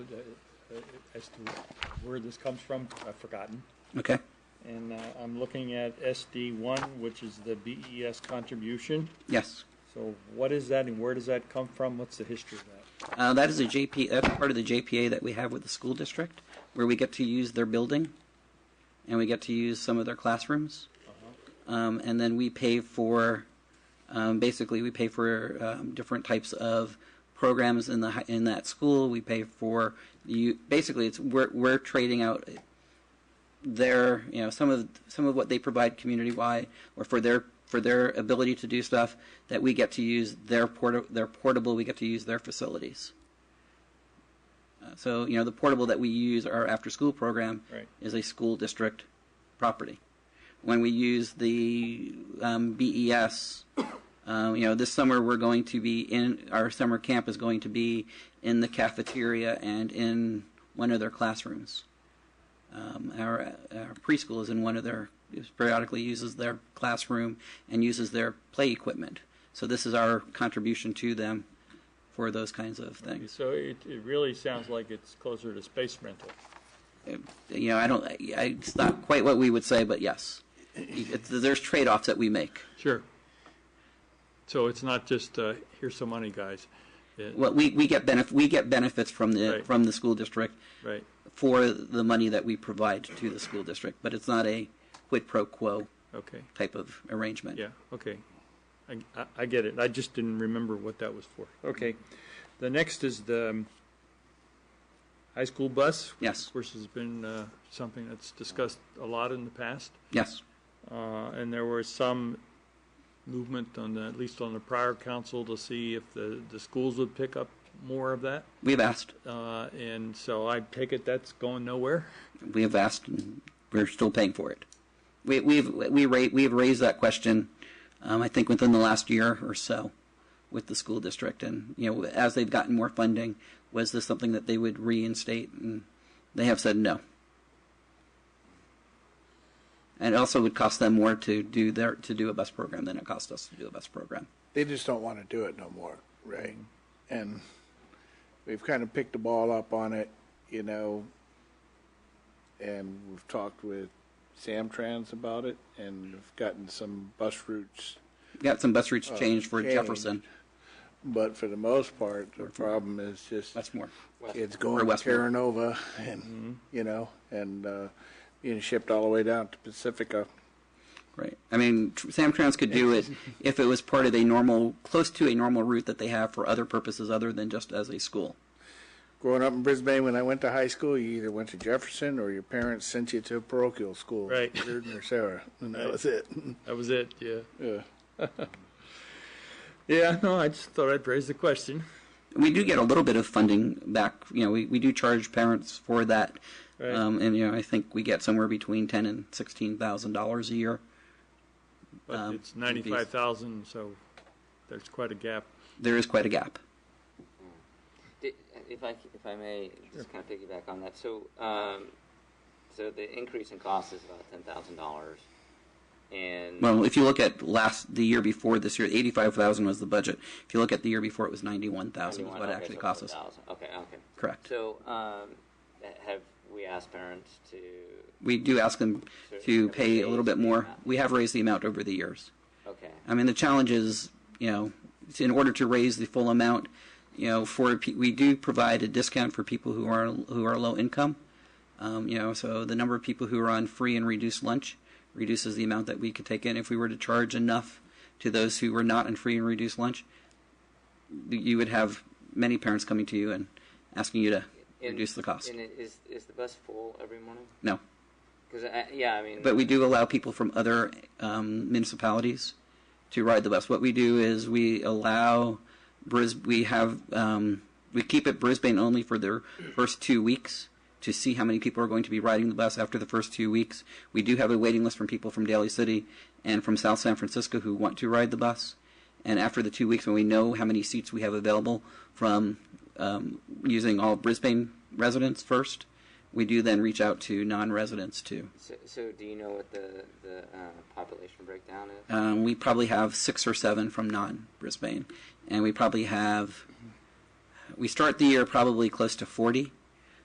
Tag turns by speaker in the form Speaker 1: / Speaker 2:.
Speaker 1: uh, uh, as to where this comes from, I've forgotten.
Speaker 2: Okay,
Speaker 1: And uh, I'm looking at SD one, which is the BES contribution.
Speaker 2: yes.
Speaker 1: So what is that and where does that come from? What's the history of that?
Speaker 2: Uh, that is a JP, that's part of the JPA that we have with the school district, where we get to use their building, and we get to use some of their classrooms. Um, and then we pay for, um, basically, we pay for um, different types of programs in the hi- in that school. We pay for you. Basically, it's we're we're trading out their you know some of some of what they provide community wide or for their for their ability to do stuff that we get to use their port their portable we get to use their facilities Uh, so you know the portable that we use our after school program
Speaker 1: Right.
Speaker 2: is a school district property when we use the um, BES um, you know this summer we're going to be in our summer camp is going to be in the cafeteria and in one of their classrooms um, our, our preschool is in one of their is periodically uses their classroom and uses their play equipment. So this is our contribution to them for those kinds of things.
Speaker 1: So it, it really sounds like it's closer to space rental.
Speaker 2: You know, I don't. I, it's not quite what we would say, but yes, it's, there's trade-offs that we make.
Speaker 1: Sure. So it's not just, uh, here's some money, guys. It-
Speaker 2: Well, we, we get benef- we get benefits from the
Speaker 1: Right.
Speaker 2: from the school district
Speaker 1: Right.
Speaker 2: for the money that we provide to the school district, but it's not a quid pro quo
Speaker 1: Okay.
Speaker 2: type of arrangement.
Speaker 1: Yeah, okay. I, I- I get it. I just didn't remember what that was for. Okay. The next is the um, high school bus.
Speaker 2: Yes.
Speaker 1: Of course, has been uh, something that's discussed a lot in the past.
Speaker 2: Yes.
Speaker 1: Uh, And there was some movement on the, at least on the prior council, to see if the, the schools would pick up more of that.
Speaker 2: We've asked.
Speaker 1: Uh, And so I take it that's going nowhere?
Speaker 2: we have asked and we're still paying for it. We, we've we rate we've raised that question, um, I think within the last year or so, with the school district, and you know as they've gotten more funding, was this something that they would reinstate? And they have said no. And it also would cost them more to do their to do a bus program than it cost us to do a bus program.
Speaker 3: they just don't want to do it no more, right? And we've kind of picked the ball up on it, you know, and we've talked with Samtrans about it, and we've gotten some bus routes.
Speaker 2: We got some bus routes changed for
Speaker 3: changed.
Speaker 2: Jefferson.
Speaker 3: But for the most part, the problem is just
Speaker 2: That's more.
Speaker 3: it's going to
Speaker 2: Westmore.
Speaker 3: Terra Nova, and you know, and uh, being shipped all the way down to Pacifica.
Speaker 2: Right. I mean, tr- Samtrans could do it if it was part of a normal, close to a normal route that they have for other purposes other than just as a school.
Speaker 3: Growing up in Brisbane, when I went to high school, you either went to Jefferson or your parents sent you to a parochial school,
Speaker 1: Right.
Speaker 3: Reardon or Sarah, and that was it.
Speaker 1: That was it, yeah.
Speaker 3: yeah.
Speaker 1: Yeah, no, I just thought I'd raise the question.
Speaker 2: We do get a little bit of funding back. You know, we, we do charge parents for that,
Speaker 1: Right.
Speaker 2: um, and you know, I think we get somewhere between ten and sixteen thousand dollars a year.
Speaker 1: But
Speaker 2: Um,
Speaker 1: it's 95,000, so there's quite a gap.
Speaker 2: There is quite a gap.
Speaker 4: Di- If I, if I may, just kind of piggyback on that. So, um, so the increase in cost is about ten thousand dollars, and
Speaker 2: Well, if you look at last the year before this year, eighty five thousand was the budget. If you look at the year before, it was ninety one thousand was what it
Speaker 4: Okay,
Speaker 2: actually
Speaker 4: so
Speaker 2: cost us.
Speaker 4: 4,000. Okay, okay.
Speaker 2: Correct.
Speaker 4: So, um, ha- have we asked parents to?
Speaker 2: We do ask them
Speaker 4: So
Speaker 2: to
Speaker 4: have we
Speaker 2: pay a little
Speaker 4: raised
Speaker 2: bit
Speaker 4: the
Speaker 2: more.
Speaker 4: amount?
Speaker 2: We have raised the amount over the years.
Speaker 4: Okay,
Speaker 2: I mean, the challenge is, you know, it's in order to raise the full amount, you know, for pe- we do provide a discount for people who are who are low income. Um, you know, so the number of people who are on free and reduced lunch reduces the amount that we could take in. If we were to charge enough to those who were not on free and reduced lunch, you would have many parents coming to you and asking you to
Speaker 4: And-
Speaker 2: reduce the cost.
Speaker 4: And i- is is the bus full every morning?
Speaker 2: No,
Speaker 4: Because yeah, I mean,
Speaker 2: but we do allow people from other um, municipalities to ride the bus. What we do is we allow Bris. We have um, we keep it Brisbane only for their first two weeks to see how many people are going to be riding the bus after the first two weeks. We do have a waiting list from people from Daly City and from South San Francisco who want to ride the bus. And after the two weeks, when we know how many seats we have available from um, using all Brisbane residents first, we do then reach out to non-residents too.
Speaker 4: so, so do you know what the the uh, population breakdown is?
Speaker 2: Um, we probably have six or seven from non Brisbane, and we probably have. We start the year probably close to forty,